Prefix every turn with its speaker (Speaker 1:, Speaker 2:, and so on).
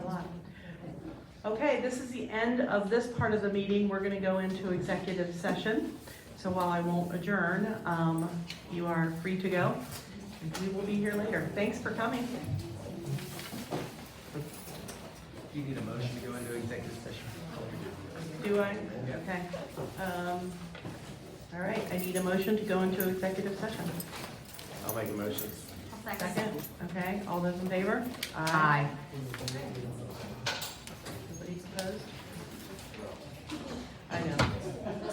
Speaker 1: Okay, this is the end of this part of the meeting. We're going to go into executive session. So while I won't adjourn, um, you are free to go. And We will be here later. Thanks for coming.
Speaker 2: Do you need a motion to go into executive session?
Speaker 1: Do I? Okay. Um, All right, I need a motion to go into executive session.
Speaker 2: I'll make a motion.
Speaker 1: Second, okay, all those in favor?
Speaker 3: Aye.
Speaker 1: Everybody's opposed?